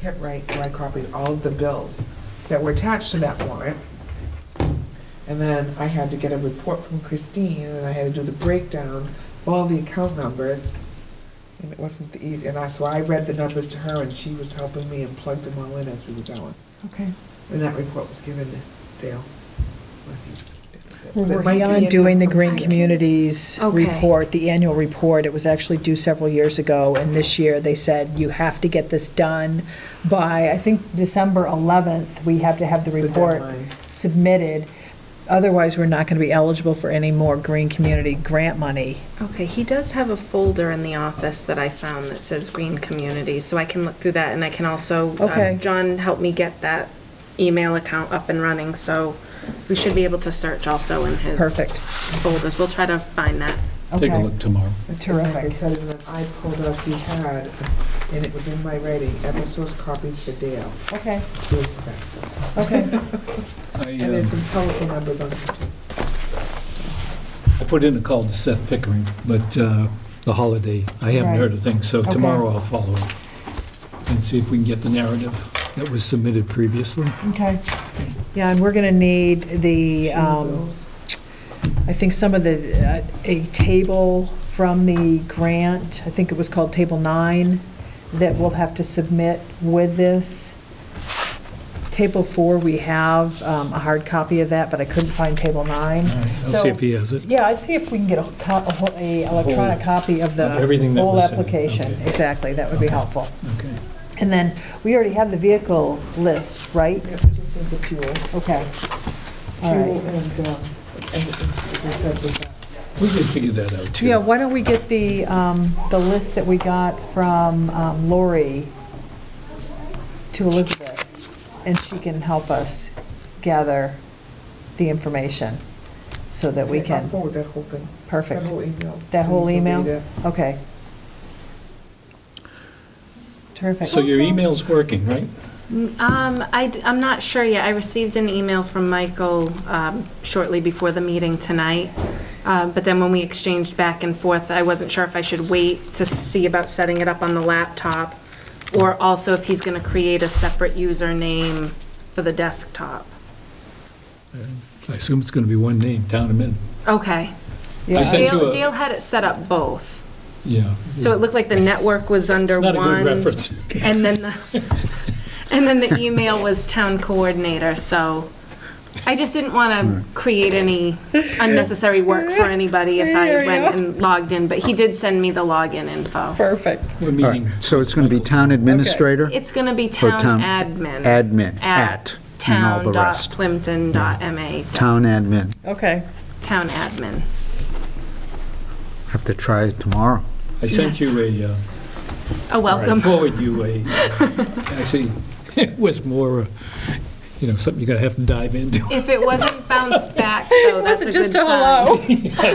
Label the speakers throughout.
Speaker 1: kept right, so I copied all of the bills that were attached to that warrant. And then I had to get a report from Christine, and I had to do the breakdown of all the account numbers. And it wasn't the, ea- and I, so I read the numbers to her, and she was helping me and plugged them all in as we were going.
Speaker 2: Okay.
Speaker 1: And that report was given to Dale.
Speaker 2: We're
Speaker 1: But it might
Speaker 2: working
Speaker 1: be
Speaker 2: on
Speaker 1: in
Speaker 2: doing the
Speaker 1: this-
Speaker 2: Green Communities
Speaker 3: Okay.
Speaker 2: report, the annual report. It was actually due several years ago, and this year they said, you have to get this done by, I think, December 11th. We have to have the
Speaker 1: It's the
Speaker 2: report
Speaker 1: deadline.
Speaker 2: submitted. Otherwise, we're not going to be eligible for any more Green Community grant money.
Speaker 3: Okay, he does have a folder in the office that I found that says Green Community, so I can look through that, and I can also, uh,
Speaker 2: Okay.
Speaker 3: John helped me get that email account up and running, so we should be able to search also in his
Speaker 2: Perfect.
Speaker 3: folders. We'll try to find that.
Speaker 4: Take a
Speaker 2: Okay.
Speaker 4: look tomorrow.
Speaker 1: It's like I
Speaker 2: Terrific.
Speaker 1: said, and then I pulled up the had, and it was in my writing, Eversource copies for Dale.
Speaker 2: Okay,
Speaker 1: It was the best.
Speaker 2: okay.
Speaker 4: I
Speaker 1: And there's
Speaker 4: uh,
Speaker 1: some telephone numbers on it.
Speaker 4: I put in a call to Seth Pickering, but uh, the holiday, I haven't
Speaker 2: Right.
Speaker 4: heard a thing, so
Speaker 2: Okay.
Speaker 4: tomorrow I'll follow up and see if we can get the narrative that was submitted previously.
Speaker 2: Okay. Yeah, and we're going to need the, um, I think some of the, uh, a table from the grant, I think it was called Table 9, that we'll have to submit with this. Table 4, we have um, a hard copy of that, but I couldn't find Table 9.
Speaker 4: All right, I'll
Speaker 2: So-
Speaker 4: see if he has it.
Speaker 2: Yeah, I'd see if we can get a co- a whole- a electronic copy of the
Speaker 4: Of everything that
Speaker 2: whole
Speaker 4: was sent,
Speaker 2: application.
Speaker 4: okay.
Speaker 2: Exactly, that would be
Speaker 4: Okay.
Speaker 2: helpful.
Speaker 4: Okay.
Speaker 2: And then, we already have the vehicle list, right?
Speaker 1: Yeah, we just need the fuel.
Speaker 2: Okay. All
Speaker 1: Fuel
Speaker 2: right.
Speaker 1: and, um, and they said with that.
Speaker 4: We can figure that out, too.
Speaker 2: Yeah, why don't we get the, um, the list that we got from um, Lori to Elizabeth, and she can help us gather the information so that we
Speaker 1: I'll
Speaker 2: can,
Speaker 1: forward that whole thing, that
Speaker 2: perfect.
Speaker 1: whole email.
Speaker 2: That
Speaker 1: so
Speaker 2: whole
Speaker 1: you can
Speaker 2: email?
Speaker 1: read it.
Speaker 2: Okay. Terrific.
Speaker 4: So your email's working, right?
Speaker 3: Um, I, am not sure yet. I received an email from Michael, um, shortly before the meeting tonight. Uh, but then when we exchanged back and forth, I wasn't sure if I should wait to see about setting it up on the laptop or also if he's gonna create a separate username for the desktop.
Speaker 4: I assume it's going to be one name, Town admin.
Speaker 3: Okay.
Speaker 4: I
Speaker 2: Yeah,
Speaker 4: sent you
Speaker 3: Dale,
Speaker 4: a-
Speaker 3: Dale had it set up both.
Speaker 4: Yeah.
Speaker 3: So it looked like the network was under one.
Speaker 4: It's not a good reference.
Speaker 3: And then, the and then the email was town coordinator, so I just didn't want to create any unnecessary work for anybody if I went and logged in, but he did send me the login info.
Speaker 2: Perfect.
Speaker 4: We're
Speaker 5: All right,
Speaker 4: meeting.
Speaker 5: so it's going to be town administrator,
Speaker 3: It's going to be
Speaker 5: Or
Speaker 3: town
Speaker 5: town
Speaker 3: admin.
Speaker 5: admin, at, and all the rest.
Speaker 3: Town.plimpton.ma,
Speaker 5: Town admin.
Speaker 2: Okay.
Speaker 3: town admin.
Speaker 5: Have to try it tomorrow.
Speaker 4: I sent you a, uh,
Speaker 3: Oh,
Speaker 4: I
Speaker 3: welcome.
Speaker 4: forward you a, actually, it was more, uh, you know, something you're going to have to dive into.
Speaker 3: If it wasn't bounced back, though, that's a good sign.
Speaker 4: As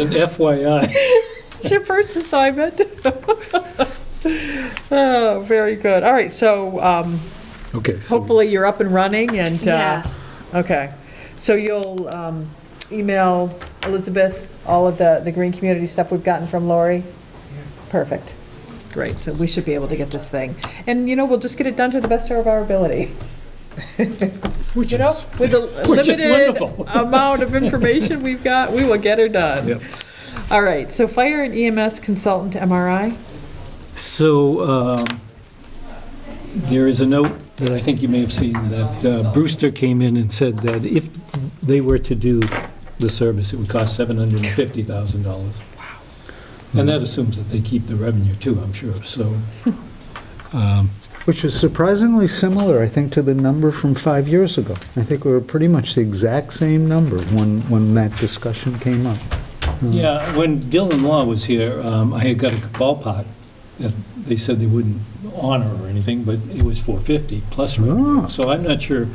Speaker 4: an FYI.
Speaker 2: It's your first assignment. Oh, very good. All right, so, um,
Speaker 4: Okay. so-
Speaker 2: hopefully you're up and running and, uh,
Speaker 3: Yes.
Speaker 2: Okay, so you'll um, email Elizabeth all of the, the green community stuff we've gotten from Lori? Perfect, great, so we should be able to get this thing. And, you know, we'll just get it done to the best of our ability,
Speaker 4: Which
Speaker 2: you know?
Speaker 4: is,
Speaker 2: With the
Speaker 4: Which is
Speaker 2: limited
Speaker 4: wonderful.
Speaker 2: amount of information we've got, we will get her done.
Speaker 4: Yep.
Speaker 2: All right, so fire and EMS consultant to MRI?
Speaker 4: So um, there is a note that I think you may have seen, that uh, Brewster came in and said that if they were to do the service, it would cost $750,000. Wow. And that assumes that they keep the revenue too, I'm sure, so. um,
Speaker 5: Which is surprisingly similar, I think, to the number from five years ago. I think we were pretty much the exact same number when, when that discussion came up.
Speaker 4: Yeah, when Dylan Law was here, um, I had got a ballpark, that they said they wouldn't honor or anything, but it was 450 plus revenue.
Speaker 5: Ah.
Speaker 4: So I'm not sure,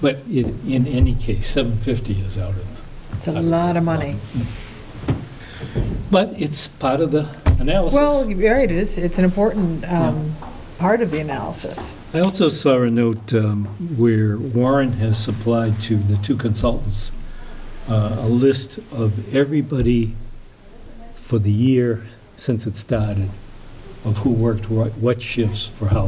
Speaker 4: but it- in any case, 750 is out of,
Speaker 2: It's a lot of money.
Speaker 4: but it's part of the
Speaker 2: Well,
Speaker 4: analysis.
Speaker 2: you're right, it is, it's an important um, part of the analysis.
Speaker 4: I also saw a note um, where Warren has supplied to the two consultants uh, a list of everybody for the year since it started, of who worked what what shifts for how